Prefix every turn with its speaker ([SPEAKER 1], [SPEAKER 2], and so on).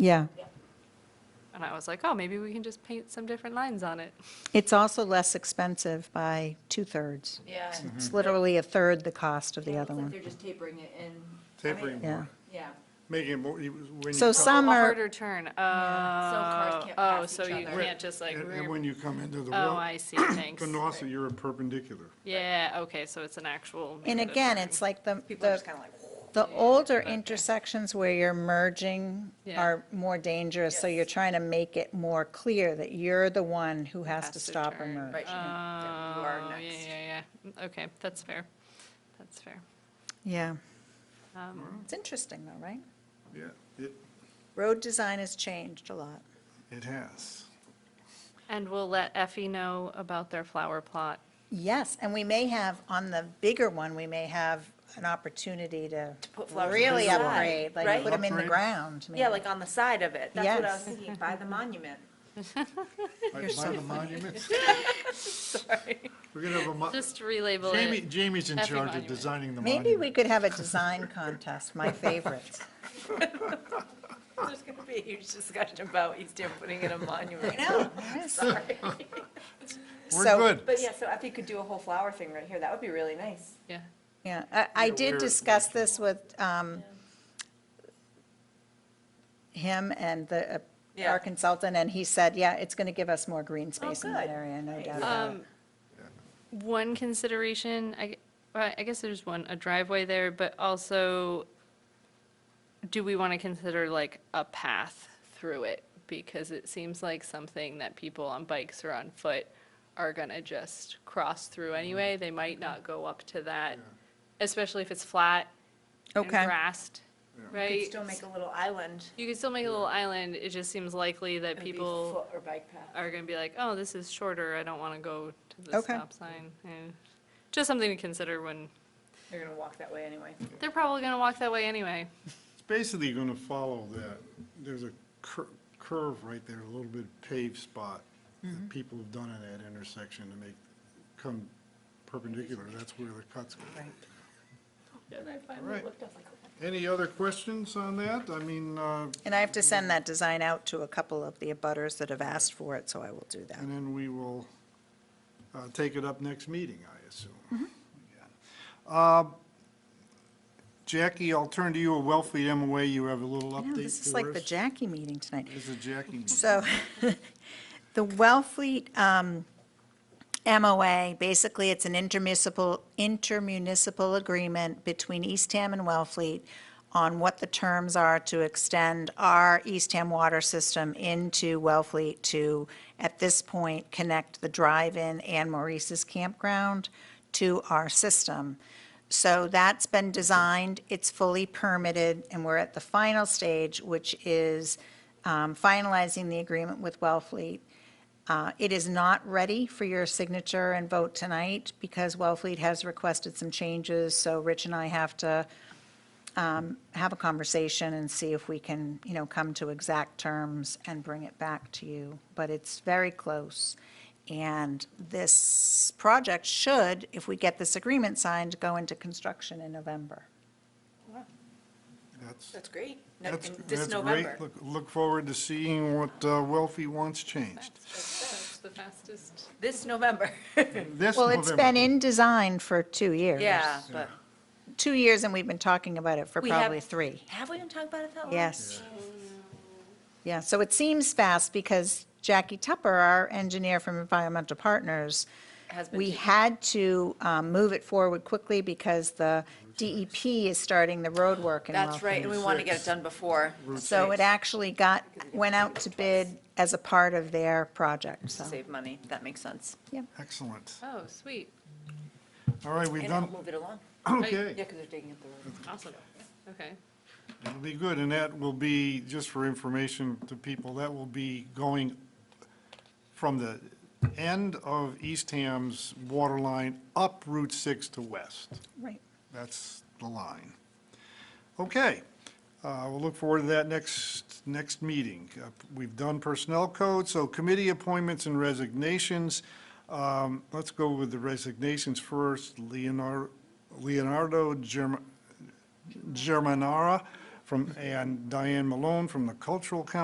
[SPEAKER 1] Yeah.
[SPEAKER 2] And I was like, oh, maybe we can just paint some different lines on it.
[SPEAKER 1] It's also less expensive by two-thirds.
[SPEAKER 3] Yeah.
[SPEAKER 1] It's literally a third the cost of the
[SPEAKER 3] Yeah, it
[SPEAKER 1] other
[SPEAKER 3] looks like
[SPEAKER 1] one.
[SPEAKER 3] They're just tapering it in. I mean,
[SPEAKER 4] Tapering
[SPEAKER 1] Yeah.
[SPEAKER 4] more,
[SPEAKER 3] Yeah.
[SPEAKER 4] making it more, you- when you.
[SPEAKER 1] So
[SPEAKER 4] come-
[SPEAKER 1] some
[SPEAKER 2] A
[SPEAKER 1] are,
[SPEAKER 2] harder turn. Oh,
[SPEAKER 3] cars
[SPEAKER 2] oh,
[SPEAKER 3] can't
[SPEAKER 2] oh,
[SPEAKER 3] pass
[SPEAKER 2] so
[SPEAKER 3] each
[SPEAKER 2] you
[SPEAKER 3] other.
[SPEAKER 2] can't just like,
[SPEAKER 4] And and
[SPEAKER 2] rear-
[SPEAKER 4] when you come into the
[SPEAKER 2] oh,
[SPEAKER 4] road,
[SPEAKER 2] I see, thanks.
[SPEAKER 4] to Nauset, you're a perpendicular.
[SPEAKER 2] Yeah, okay, so it's an actual.
[SPEAKER 1] and again, it's like the,
[SPEAKER 5] People are
[SPEAKER 1] the
[SPEAKER 5] just kind of like,
[SPEAKER 1] the older intersections where you're merging
[SPEAKER 2] Yeah.
[SPEAKER 1] are more dangerous, so you're trying to make it more clear that you're the one who has to stop and
[SPEAKER 2] turn.
[SPEAKER 1] merge.
[SPEAKER 5] right,
[SPEAKER 2] Oh,
[SPEAKER 5] you know, you are
[SPEAKER 2] yeah,
[SPEAKER 5] next.
[SPEAKER 2] yeah, yeah. Mm, Okay, that's fair. That's fair.
[SPEAKER 1] Yeah.
[SPEAKER 2] Um,
[SPEAKER 1] It's interesting though, right?
[SPEAKER 4] Yeah, it,
[SPEAKER 1] Road design has changed a lot.
[SPEAKER 4] it has.
[SPEAKER 2] And we'll let Effie know about their flower plot.
[SPEAKER 1] Yes, and we may have, on the bigger one, we may have an opportunity to
[SPEAKER 5] put flowers
[SPEAKER 1] really
[SPEAKER 5] on the side,
[SPEAKER 1] upgrade, like
[SPEAKER 5] right?
[SPEAKER 1] put them in the
[SPEAKER 4] Upgrade.
[SPEAKER 1] ground.
[SPEAKER 5] Yeah,
[SPEAKER 1] maybe.
[SPEAKER 5] like on the side of it. That's what I was
[SPEAKER 1] Yes.
[SPEAKER 5] thinking, by the monument.
[SPEAKER 4] By by the monuments, we're gonna have a, mo-
[SPEAKER 2] Just relabel
[SPEAKER 4] Jamie,
[SPEAKER 2] it.
[SPEAKER 4] Jamie's in
[SPEAKER 2] Effing
[SPEAKER 4] charge of
[SPEAKER 2] monument.
[SPEAKER 4] designing the
[SPEAKER 1] Maybe we
[SPEAKER 4] monument.
[SPEAKER 1] could have a design contest, my favorite.
[SPEAKER 5] There's going to be a huge discussion about East Hampton putting in a monument.
[SPEAKER 1] Sorry.
[SPEAKER 4] We're good.
[SPEAKER 5] But yeah, so if you could do a whole flower thing right here, that would be really nice.
[SPEAKER 2] Yeah.
[SPEAKER 1] Yeah, I, I
[SPEAKER 4] Yeah,
[SPEAKER 1] did
[SPEAKER 4] we're-
[SPEAKER 1] discuss this with um, him and the, uh,
[SPEAKER 5] Yeah. Oh,
[SPEAKER 1] our consultant, and he said, yeah, it's going to give us more green space in that
[SPEAKER 5] good.
[SPEAKER 1] area, no
[SPEAKER 5] Nice.
[SPEAKER 1] doubt about it.
[SPEAKER 2] Um, One consideration, I, gue- well, I guess there's one, a driveway there, but also, do we want to consider like a path through it? Because it seems like something that people on bikes or on foot are gonna just cross through anyway. They might not go up to that, especially if it's flat and
[SPEAKER 1] Okay.
[SPEAKER 2] grassed, right?
[SPEAKER 5] You could still make a little island.
[SPEAKER 2] You could still make a little island. It just seems likely that
[SPEAKER 5] It'd be
[SPEAKER 2] people
[SPEAKER 5] foot Or bike path.
[SPEAKER 2] are gonna be like, oh, this is shorter, I don't wanna go to the
[SPEAKER 1] Okay.
[SPEAKER 2] stop sign. And Just something to consider when,
[SPEAKER 5] They're going to walk that way anyway.
[SPEAKER 2] they're probably gonna walk that way anyway.
[SPEAKER 4] It's basically gonna follow that, there's a cur- curve right there, a little bit paved spot
[SPEAKER 1] Mm-hmm.
[SPEAKER 4] that people have done in that intersection to make, come perpendicular, that's where the cuts go. Right.
[SPEAKER 5] "Oh,
[SPEAKER 4] Any other questions on that? I mean, uh,
[SPEAKER 1] And I have to send that design out to a couple of the abutters that have asked for it, so I will do that.
[SPEAKER 4] And then we will uh, take it up next meeting, I assume.
[SPEAKER 1] Mm-hmm.
[SPEAKER 4] Yeah. Uh, Jackie, I'll turn to you, a Wellfleet MOA, you have a little
[SPEAKER 1] I
[SPEAKER 4] update
[SPEAKER 1] know,
[SPEAKER 4] for us?
[SPEAKER 1] This is like the Jackie meeting tonight.
[SPEAKER 4] This is Jackie.
[SPEAKER 1] So the Wellfleet um, MOA, basically, it's an intermunicipal, intermunicipal agreement between Eastham and Wellfleet on what the terms are to extend our Eastham water system into Wellfleet to, at this point, connect the drive-in and Maurice's campground to our system. So that's been designed, it's fully permitted, and we're at the final stage, which is um, finalizing the agreement with Wellfleet. Uh, It is not ready for your signature and vote tonight because Wellfleet has requested some changes, so Rich and I have to um, have a conversation and see if we can, you know, come to exact terms and bring it back to you. But it's very close. And this project should, if we get this agreement signed, go into construction in November.
[SPEAKER 4] That's,
[SPEAKER 5] That's great. No-
[SPEAKER 4] that's,
[SPEAKER 5] in This
[SPEAKER 4] that's great.
[SPEAKER 5] November.
[SPEAKER 4] Look, look forward to seeing what uh, Wellfleet wants changed.
[SPEAKER 2] That's the fastest.
[SPEAKER 5] This November.
[SPEAKER 4] This
[SPEAKER 1] Well, it's
[SPEAKER 4] November.
[SPEAKER 1] been in design for two years.
[SPEAKER 5] Yeah, but
[SPEAKER 1] Two years, and we've been talking about it for
[SPEAKER 5] We have-
[SPEAKER 1] probably three.
[SPEAKER 5] have we been talking about it that long?
[SPEAKER 1] Yes. Yeah, so it seems fast because Jackie Tupper, our engineer from Environmental Partners,
[SPEAKER 5] Has been
[SPEAKER 1] we
[SPEAKER 5] taking-
[SPEAKER 1] had to um, move it forward quickly because the DEP is starting the road work in
[SPEAKER 5] That's right, and
[SPEAKER 1] Wellfleet.
[SPEAKER 5] we want to get it done before.
[SPEAKER 1] So it actually got, went out to bid as a part of their project, so.
[SPEAKER 5] Save money. That makes sense.
[SPEAKER 4] Excellent.
[SPEAKER 2] Oh, sweet,
[SPEAKER 4] All right, we've
[SPEAKER 5] And it'll
[SPEAKER 4] done,
[SPEAKER 5] move it along.
[SPEAKER 4] okay.
[SPEAKER 5] Yeah, because they're digging up the road.
[SPEAKER 2] awesome, okay.
[SPEAKER 4] It'll be good, and that will be, just for information to people, that will be going from the end of Eastham's water line up Route 6 to west.
[SPEAKER 1] Right.
[SPEAKER 4] That's the line. Okay, uh, we'll look forward to that next, next meeting. Uh, We've done personnel code, so committee appointments and resignations. Um, Let's go with the resignations first. Leonardo, Leonardo Germ- Germanara from, and Diane Malone from the Cultural Council